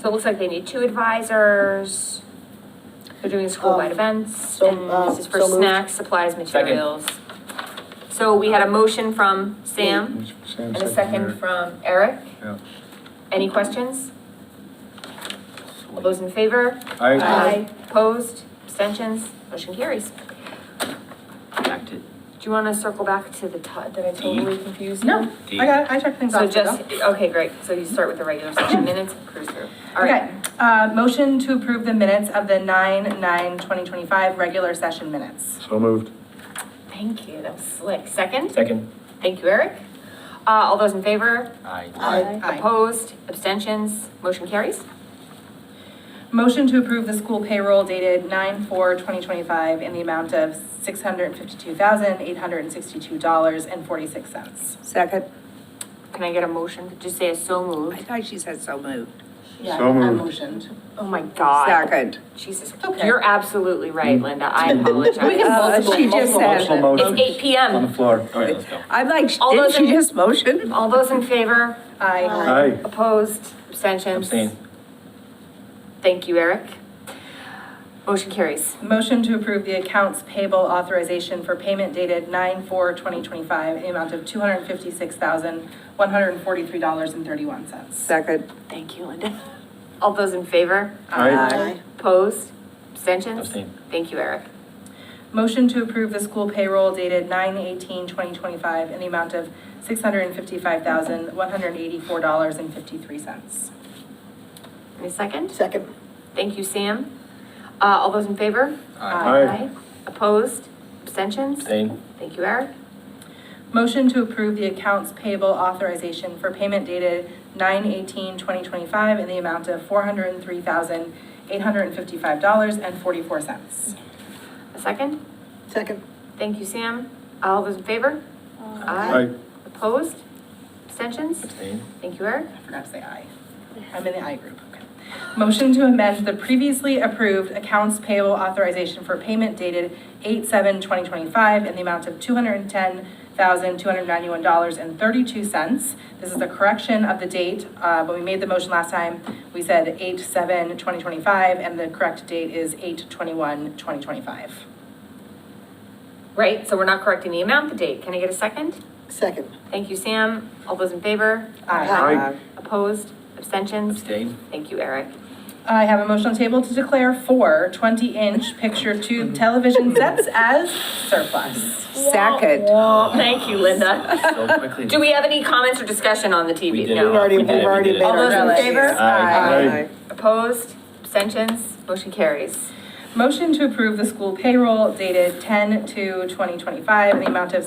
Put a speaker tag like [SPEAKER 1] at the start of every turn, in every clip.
[SPEAKER 1] So it looks like they need two advisors. They're doing school-wide
[SPEAKER 2] Um,
[SPEAKER 1] events,
[SPEAKER 2] so,
[SPEAKER 1] and
[SPEAKER 2] um,
[SPEAKER 1] this is for
[SPEAKER 2] so moved.
[SPEAKER 1] snacks, supplies, materials. So we had a motion from Sam and a second from Eric.
[SPEAKER 3] Yeah.
[SPEAKER 1] Any questions? All those in favor?
[SPEAKER 3] I,
[SPEAKER 1] Opposed, abstentions, motion carries. Do
[SPEAKER 4] Back to
[SPEAKER 1] you want to circle back to the, to- did I totally confuse you?
[SPEAKER 5] No,
[SPEAKER 4] D.
[SPEAKER 5] I got it, I checked things
[SPEAKER 1] So
[SPEAKER 5] off.
[SPEAKER 1] just, okay, great, so you start with the regular session minutes, cruise through. All right,
[SPEAKER 5] Okay, uh, motion to approve the minutes of the nine, nine, twenty twenty-five regular session minutes.
[SPEAKER 3] so moved.
[SPEAKER 1] thank you, that was slick. Second,
[SPEAKER 4] Second.
[SPEAKER 1] thank you, Eric. Uh, all those in favor?
[SPEAKER 4] Aye.
[SPEAKER 5] Aye.
[SPEAKER 1] Opposed, abstentions, motion carries?
[SPEAKER 5] Motion to approve the school payroll dated nine, four, twenty twenty-five in the amount of six hundred and fifty-two thousand, eight hundred and sixty-two dollars and forty-six cents.
[SPEAKER 2] Second.
[SPEAKER 1] Can I get a motion? Just say a so
[SPEAKER 2] I
[SPEAKER 1] moved.
[SPEAKER 2] thought she said so moved.
[SPEAKER 5] Yeah,
[SPEAKER 3] So
[SPEAKER 5] I
[SPEAKER 3] moved.
[SPEAKER 5] motioned.
[SPEAKER 1] Oh my God.
[SPEAKER 2] Second.
[SPEAKER 1] Jesus,
[SPEAKER 5] Okay.
[SPEAKER 1] you're absolutely right, Linda, I
[SPEAKER 5] We can
[SPEAKER 1] apologize.
[SPEAKER 2] Uh,
[SPEAKER 5] multiple-
[SPEAKER 2] She just
[SPEAKER 5] multiple
[SPEAKER 2] said
[SPEAKER 3] Motion,
[SPEAKER 2] it.
[SPEAKER 3] motion.
[SPEAKER 1] It's eight PM.
[SPEAKER 3] On the floor.
[SPEAKER 4] All right, let's go.
[SPEAKER 2] I'm like,
[SPEAKER 1] All
[SPEAKER 2] didn't
[SPEAKER 1] those
[SPEAKER 2] she
[SPEAKER 1] in-
[SPEAKER 2] just motion?
[SPEAKER 1] All those in favor?
[SPEAKER 5] Aye.
[SPEAKER 3] Aye.
[SPEAKER 1] Opposed, abstentions?
[SPEAKER 4] Abstain.
[SPEAKER 1] Thank you, Eric. Motion carries.
[SPEAKER 5] Motion to approve the accounts payable authorization for payment dated nine, four, twenty twenty-five in the amount of two hundred and fifty-six thousand, one hundred and forty-three dollars and thirty-one cents.
[SPEAKER 2] Second.
[SPEAKER 1] Thank you, Linda. All those in favor?
[SPEAKER 2] Aye.
[SPEAKER 1] Opposed? Abstentions?
[SPEAKER 4] Abstain.
[SPEAKER 1] Thank you, Eric.
[SPEAKER 5] Motion to approve the school payroll dated 9/18/2025 in the amount of $655,184.53.
[SPEAKER 1] Any second?
[SPEAKER 2] Second.
[SPEAKER 1] Thank you, Sam. Uh, all those in favor?
[SPEAKER 5] Aye.
[SPEAKER 1] Opposed? Abstentions?
[SPEAKER 4] Abstain.
[SPEAKER 1] Thank you, Eric.
[SPEAKER 5] Motion to approve the accounts payable authorization for payment dated 9/18/2025 in the amount of $403,855.44.
[SPEAKER 1] A second?
[SPEAKER 2] Second.
[SPEAKER 1] Thank you, Sam. All those in favor?
[SPEAKER 3] Aye.
[SPEAKER 1] Opposed? Abstentions?
[SPEAKER 4] Abstain.
[SPEAKER 1] Thank you, Eric.
[SPEAKER 5] I forgot to say aye. I'm in the I group, okay. Motion to amend the previously approved accounts payable authorization for payment dated eight seven twenty twenty-five in the amount of two hundred and ten thousand, two hundred and ninety-one dollars and thirty-two cents. This is a correction of the date. Uh, when we made the motion last time, we said eight seven twenty twenty-five, and the correct date is eight twenty-one twenty twenty-five.
[SPEAKER 1] Right, so we're not correcting the amount, the date. Can I get a second?
[SPEAKER 2] Second.
[SPEAKER 1] Thank you, Sam. All those in favor?
[SPEAKER 5] Aye.
[SPEAKER 3] Aye.
[SPEAKER 1] Opposed? Abstentions?
[SPEAKER 4] Abstain.
[SPEAKER 1] Thank you, Eric.
[SPEAKER 5] I have a motion on the table to declare four 20-inch picture tube television sets as surplus.
[SPEAKER 2] Second.
[SPEAKER 1] Thank you, Linda.
[SPEAKER 4] So quickly.
[SPEAKER 1] Do we have any comments or discussion on the
[SPEAKER 4] We
[SPEAKER 1] TV?
[SPEAKER 4] did it.
[SPEAKER 1] No.
[SPEAKER 4] We
[SPEAKER 2] already-
[SPEAKER 4] did it.
[SPEAKER 2] we've
[SPEAKER 4] We
[SPEAKER 2] already
[SPEAKER 4] did it.
[SPEAKER 2] made
[SPEAKER 1] All those in favor?
[SPEAKER 4] Aye.
[SPEAKER 3] Aye.
[SPEAKER 1] Opposed? Abstentions? Motion carries.
[SPEAKER 5] Motion to approve the school payroll dated 10 to 2025 in the amount of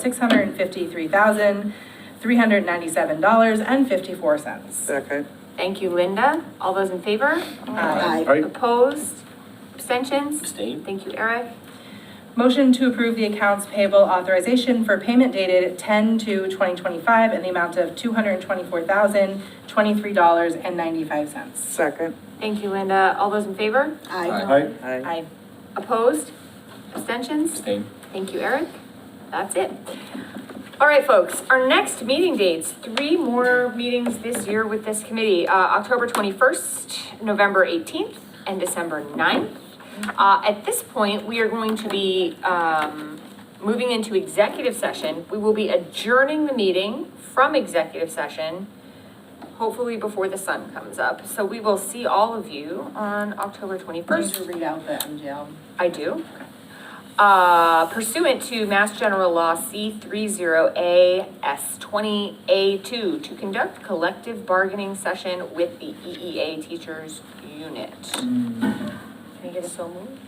[SPEAKER 5] $653,397.54.
[SPEAKER 2] Second.
[SPEAKER 1] Thank you, Linda. All those in favor?
[SPEAKER 5] Aye.
[SPEAKER 3] Aye.
[SPEAKER 1] Opposed? Abstentions?
[SPEAKER 4] Abstain.
[SPEAKER 1] Thank you, Eric.
[SPEAKER 5] Motion to approve the accounts payable authorization for payment dated 10 to 2025 in the amount of $224,023.95.
[SPEAKER 2] Second.
[SPEAKER 1] Thank you, Linda. All those in favor?
[SPEAKER 3] Aye.
[SPEAKER 5] Aye.
[SPEAKER 1] Opposed? Abstentions?
[SPEAKER 4] Abstain.
[SPEAKER 1] Thank you, Eric. That's it. All right, folks, our next meeting dates, three more meetings this year with this committee, uh, October twenty-first, November eighteenth, and December 9th. Uh, at this point, we are going to be, um, moving into executive session. We will be adjourning the meeting from executive session, hopefully before the sun comes up. So we will see all of you on October twenty-first.
[SPEAKER 5] First, read out the MGL.
[SPEAKER 1] I do. Uh, Pursuant to Mass General Law C three zero A S twenty A two, to conduct collective bargaining session with the EEA Teachers Unit. Can I get a so moved?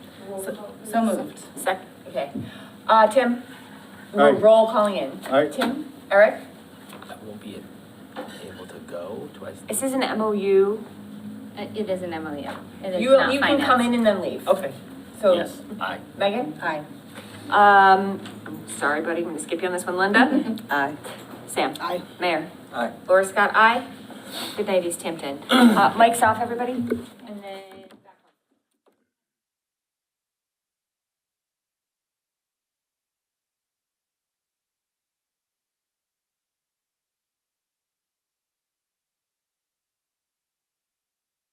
[SPEAKER 5] So moved.
[SPEAKER 1] Sec, okay. Uh, Tim, we're
[SPEAKER 3] Aye.
[SPEAKER 1] roll calling in.
[SPEAKER 3] Aye.
[SPEAKER 1] Tim, Eric,
[SPEAKER 4] I won't be able to go. Do I?
[SPEAKER 1] this is an MOU.
[SPEAKER 6] Uh, It is an MLU. It is
[SPEAKER 1] You,
[SPEAKER 6] not
[SPEAKER 1] you can come
[SPEAKER 6] finance.
[SPEAKER 1] in and then leave.
[SPEAKER 4] Okay.
[SPEAKER 1] So,
[SPEAKER 4] Yes. Aye.
[SPEAKER 1] Megan?
[SPEAKER 5] Aye.
[SPEAKER 1] Um, I'm sorry, buddy, I'm gonna skip you on this one, Linda.
[SPEAKER 2] Aye.
[SPEAKER 1] Sam?
[SPEAKER 2] Aye.
[SPEAKER 1] Mayor?
[SPEAKER 4] Aye.
[SPEAKER 1] Laura Scott, aye. Good night, East Hampton. Uh, mic's off, everybody.
[SPEAKER 6] And then.